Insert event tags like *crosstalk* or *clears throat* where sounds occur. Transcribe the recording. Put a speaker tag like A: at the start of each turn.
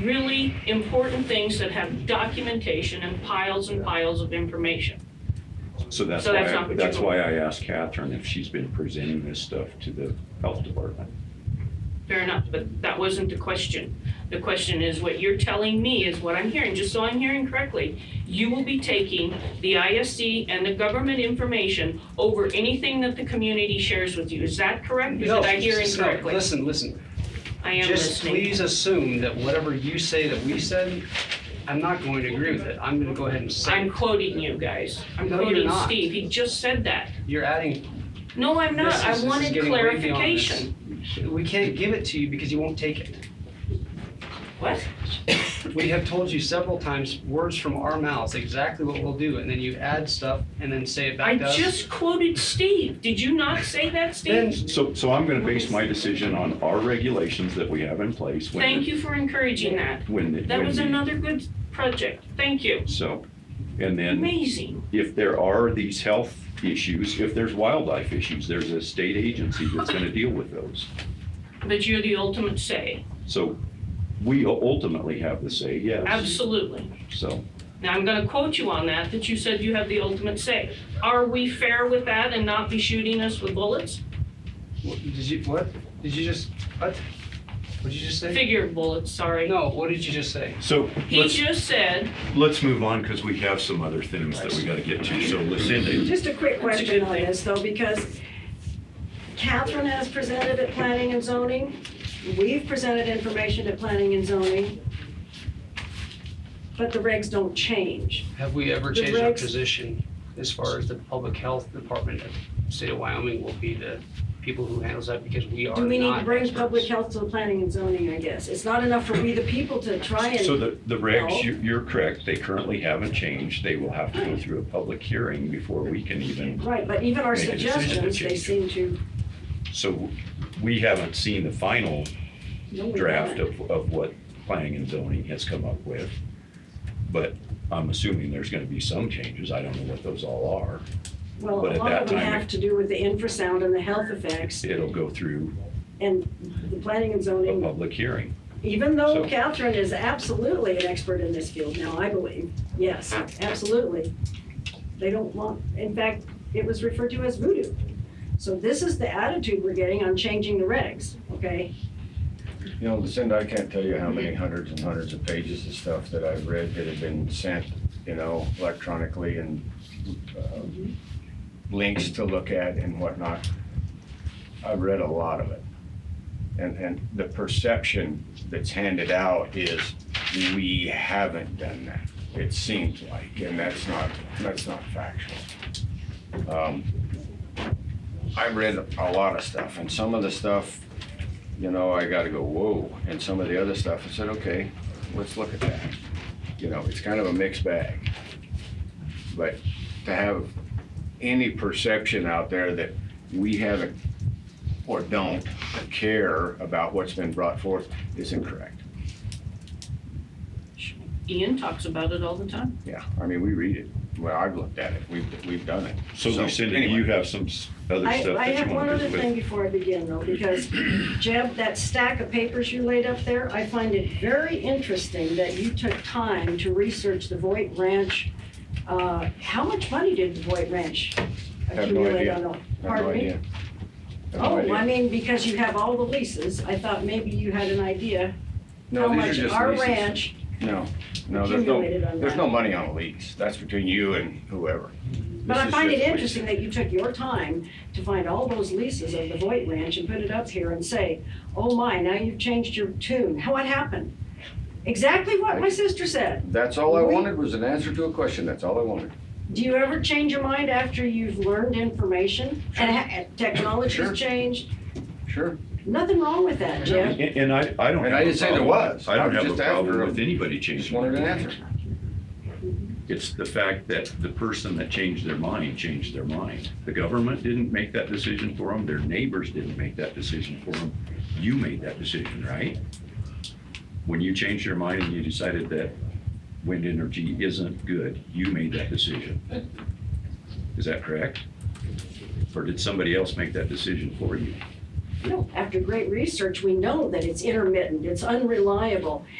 A: really important things that have documentation and piles and piles of information.
B: So that's
A: So
B: why,
A: that's not
B: I-
A: what
B: that's
A: you-
B: why I asked Catherine if she's been presenting this stuff to the health department.
A: Fair enough, but that wasn't the question. The question is what you're telling me is what I'm hearing, just so I'm hearing correctly. You will be taking the ISD and the government information over anything that the community shares with you. Is that correct? Or
C: No,
A: did I hear
C: no,
A: incorrectly?
C: Listen, listen.
A: I am
C: Just
A: listening.
C: please assume that whatever you say that we said, I'm not going to agree with it. I'm going to go ahead and say,
A: I'm
C: it.
A: quoting you guys. I'm
C: No, you're
A: quoting
C: not.
A: Steve. He just said that.
C: you're adding,
A: No, I'm not.
C: This is-
A: I
C: this is
A: wanted
C: getting way beyond this.
A: clarification.
C: we can't give it to you because you won't take it.
A: What?
C: We have told you several times, words from our mouths, exactly what we'll do, and then you add stuff and then say it
A: I
C: back to us.
A: just quoted Steve. Did you not say that,
C: Then-
A: Steve?
B: So, so I'm gonna base my decision on our regulations that we have in place. when
A: Thank
B: the-
A: you for encouraging that.
B: When, the-
A: That
B: when
A: was
B: the-
A: another good project. Thank you.
B: So, and then
A: Amazing.
B: if there are these health issues, if there's wildlife issues, there's a state agency that's
A: *laughs*
B: gonna deal with those.
A: But you're the ultimate say.
B: So we ultimately have the say, yes,
A: Absolutely.
B: so.
A: Now, I'm going to quote you on that, that you said you have the ultimate say. Are we fair with that and not be shooting us with bullets?
C: What- Did you, what? Did you just, what? What'd you just say?
A: Figure bullets, sorry.
C: No, what did you just say?
B: So
A: He
B: let's,
A: just said,
B: let's move on because we have some other things that we gotta get to. So Lucinda,
D: Just a quick question on this though, because Catherine has presented at planning and zoning. We've presented information at planning and zoning. But the regs don't change.
C: Have we ever
D: The
C: changed our
D: regs-
C: position as far as the public health department of the state of Wyoming will be the people who handles that because we are
D: Do we need
C: not
D: to bring public
C: experts?
D: health to the planning and zoning, I guess? It's not enough for we the people to try
B: so
D: and,
B: the, the regs, you- you're correct, they currently haven't changed. They will have to go through a public hearing before we can even,
D: right, but even our
B: Make a decision to
D: suggestions, they
B: change.
D: seem to,
B: so we haven't seen the final
D: no, we
B: draft
D: haven't.
B: of, of what planning and zoning has come up with. But I'm assuming there's gonna be some changes. I don't know what those all are.
D: Well,
B: but
D: a
B: at
D: lot
B: that
D: of them
B: time it-
D: have to do with the infrasound and the health effects
B: It'll go through
D: and the planning and
B: a
D: zoning
B: public hearing.
D: Even though
B: So-
D: Catherine is absolutely an expert in this field now, I believe, yes, absolutely. They don't want, in fact, it was referred to as voodoo. So this is the attitude we're getting on changing the regs, okay?
E: You know, Lucinda, I can't tell you how many hundreds and hundreds of pages of stuff that I've read that have been sent, you know, electronically and um, links to look at and whatnot. I've read a lot of it. And, and the perception that's handed out is we haven't done that, it seems like, and that's not, that's not factual. Um, I read a lot of stuff and some of the stuff you know, I gotta go, whoa, and some of the other stuff, I said, okay, let's look at that. You know, it's kind of a mixed bag. But to have any perception out there that we haven't or don't care about what's been brought forth is incorrect.
A: Ian talks about it all the time.
E: Yeah, I mean, we read it, well, I've looked at it, we've, we've done it.
B: So Lucinda, do
E: anyway.
B: you have some s- other
D: I,
B: stuff
D: I
B: that
D: have
B: you
D: one
B: want to
D: other
B: visit
D: thing
B: with?
D: before I begin though,
B: *clears throat*
D: because Jeb, that stack of papers you laid up there, I find it very interesting that you took time to research the Voight Ranch. Uh, How much money did the Voight Ranch
E: no
D: accumulate
E: idea.
D: on the?
E: I have no
D: Pardon me?
E: idea. I have no
D: Oh,
E: idea.
D: I mean, because you have all the leases, I thought maybe you had an idea how
E: No, these are
D: much
E: just
D: our
E: leases.
D: ranch,
E: No, no, there's no,
D: accumulated on
E: there's
D: that.
E: no money on a lease, that's between you and whoever.
D: but
E: This
D: I
E: is
D: find it
E: just leases.
D: interesting that you took your time to find all those leases of the Voight Ranch and put it up here and say, oh my, now you've changed your tune, what happened? Exactly what my sister said,
E: That's all I
D: We-
E: wanted was an answer to a question. That's all I wanted.
D: do you ever change your mind after you've learned information? And ha- and
E: Sure.
D: technology's changed,
E: Sure.
D: nothing wrong with that, Jim.
B: And and I, I don't.
E: And I
B: have a
E: didn't say there
B: problem.
E: was.
B: I
E: I
B: don't
E: was
B: have a
E: just after
B: problem
E: them.
B: with anybody
E: Just
B: changing.
E: wanted an
B: their
E: answer.
B: mind. It's the fact that the person that changed their mind, changed their mind. The government didn't make that decision for them, their neighbors didn't make that decision for them. You made that decision, right? When you changed your mind and you decided that wind energy isn't good, you made that decision. Is that correct? Or did somebody else make that decision for you?
D: No, After great research, we know that it's intermittent, it's unreliable,